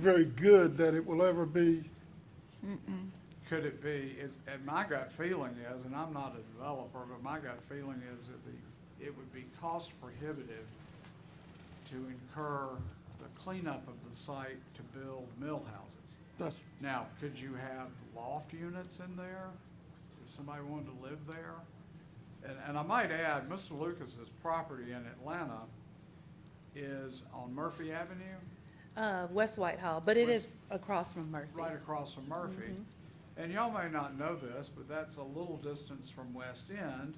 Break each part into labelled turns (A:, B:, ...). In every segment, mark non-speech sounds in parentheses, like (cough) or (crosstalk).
A: very good that it will ever be.
B: Could it be, is, and my gut feeling is, and I'm not a developer, but my gut feeling is that the, it would be cost prohibitive to incur the cleanup of the site to build mill houses.
A: That's,
B: Now, could you have loft units in there if somebody wanted to live there? And, and I might add, Mr. Lucas's property in Atlanta is on Murphy Avenue.
C: Uh, West Whitehall, but it
B: West-
C: is across from Murphy.
B: right across from Murphy. And y'all may not know this, but that's a little distance from West End,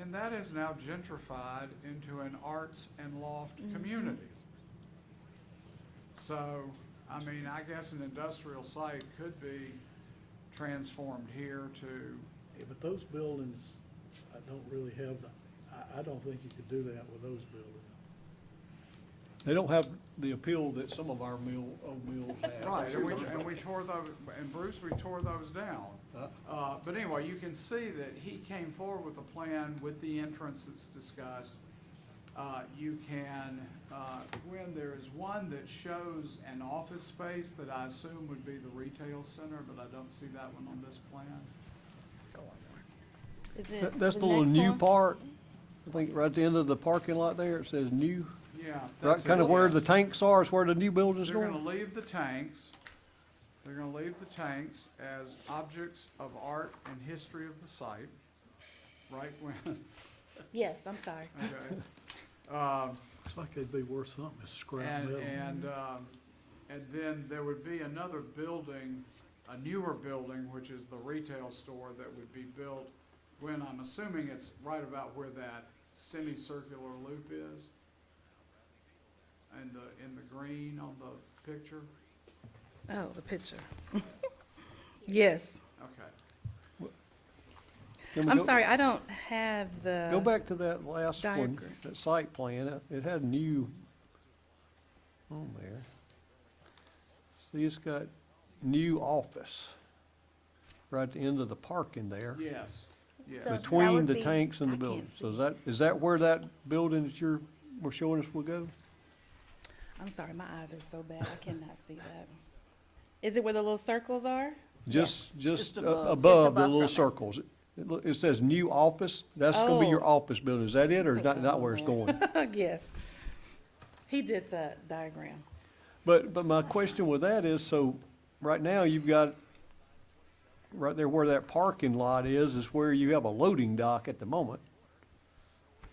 B: and that is now gentrified into an arts and loft community. So, I mean, I guess an industrial site could be transformed here to,
D: Yeah, but those buildings, I don't really have, the I, I don't think you could do that with those buildings.
E: They don't have the appeal that some of our mill, old mills have.
B: right, and we, and we tore those, and Bruce, we tore those down.
E: Uh,
B: Uh, But anyway, you can see that he came forward with a plan with the entrance that's discussed. Uh, You can, uh, when there is one that shows an office space that I assume would be the retail center, but I don't see that one on this plan.
C: Is
E: that-
C: it
E: That's the
C: the
E: little
C: next
E: new
C: one?
E: part, I think right at the end of the parking lot there, it says new,
B: Yeah.
E: right,
B: that's
E: kind of
B: it.
E: where the tanks are, is where the new building's
B: They're gonna
E: going.
B: leave the tanks, they're gonna leave the tanks as objects of art and history of the site, right when,
C: Yes, I'm sorry.
B: okay. Um,
D: Looks like they'd be worth something, as scrap
B: And,
D: metal.
B: and, um, and then there would be another building, a newer building, which is the retail store that would be built. Gwen, I'm assuming it's right about where that semicircular loop is? And the, in the green on the picture?
C: Oh, the picture. (laughs) Yes.
B: Okay.
E: Can we
C: I'm
E: go-
C: sorry, I don't have the.
E: Go back to that last one,
C: diagram.
E: that site plan, It- it had new on there. See, it's got new office, right at the end of the parking there.
B: Yes, yes.
F: So- that
E: Between
F: would
E: the
F: be-
E: tanks and
F: I
E: the
F: can't
E: building. So
F: see.
E: is that, is that where that building that you're, were showing us will go?
C: I'm sorry, my eyes are so bad, I cannot see that. Is it where the little circles are? (laughs)
E: Just,
F: just
E: just a-
F: above. Just
E: above the
F: above from
E: little
F: it.
E: circles. It loo- It says new office, that's gonna be your
C: Oh.
E: office building. Is that it or is
C: Put
E: that
C: that
E: not
C: on
E: where it's
C: there.
F: (laughs)
E: going?
C: Yes. He did the diagram.
E: But, but my question with that is, so, right now, you've got, right there where that parking lot is, is where you have a loading dock at the moment.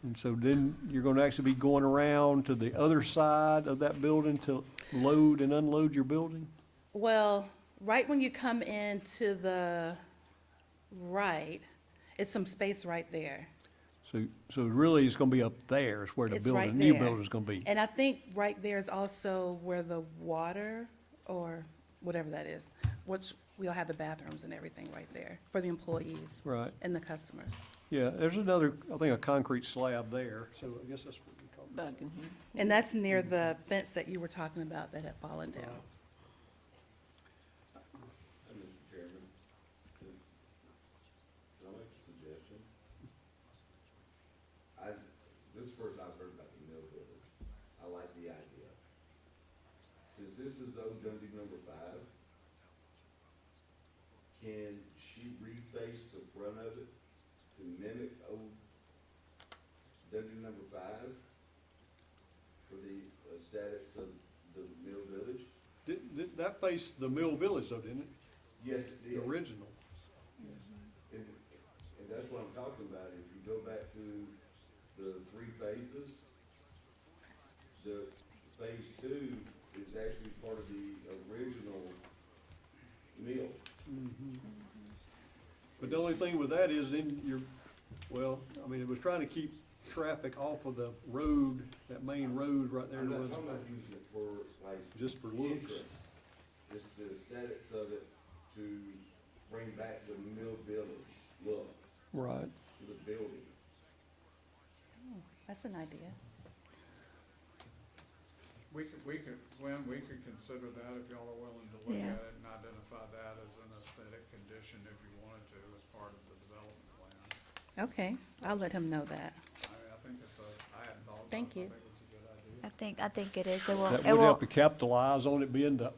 E: And so then you're gonna actually be going around to the other side of that building to load and unload your building?
C: Well, right when you come in to the right, it's some space right there.
E: So, so really, it's gonna be up there is where the
C: It's right
E: building, new
C: there.
E: building's gonna be.
C: And I think right there is also where the water, or whatever that is, which we'll have the bathrooms and everything right there for the employees
E: Right,
C: and the customers.
E: yeah, there's another, I think, a concrete slab there, so I guess that's what we're talking about.
F: Back in here.
C: And that's near the fence that you were talking about that had fallen down.
G: Uh, Mr. Chairman, can can I make a suggestion? I, this is the first I've heard about the mill building. I like the idea. Since this is old Dundee number five, can she reface the front of it to mimic old Dundee number five for the aesthetics of the mill village?
E: Did- did- That faced the Mill Village though, didn't it?
G: Yes, it
E: The
G: did.
E: original.
G: And, and that's what I'm talking about, if you go back to the three phases, the phase two is actually part of the original mill.
E: But the only thing with that is then you're, well, I mean, it was trying to keep traffic off of the road, that main road right there.
G: I'm
E: to
G: not
E: where the-
G: talking about using it for like
E: Just for looks.
G: interest, it's the aesthetics of it to bring back the mill village look
E: Right.
G: to the building.
C: That's an idea.
B: We could, we could, Gwen, we could consider that if y'all are willing to look
C: Yeah.
B: at it and identify that as an aesthetic condition if you wanted to as part of the development plan.
C: Okay, I'll let him know that.
B: I mean, I think it's a, I hadn't thought about it.
C: Thank
B: but I
C: you.
B: think it's a good idea.
F: I think, I think it is. It will,
E: That
F: it
E: would
F: will
E: help to capitalize on it being the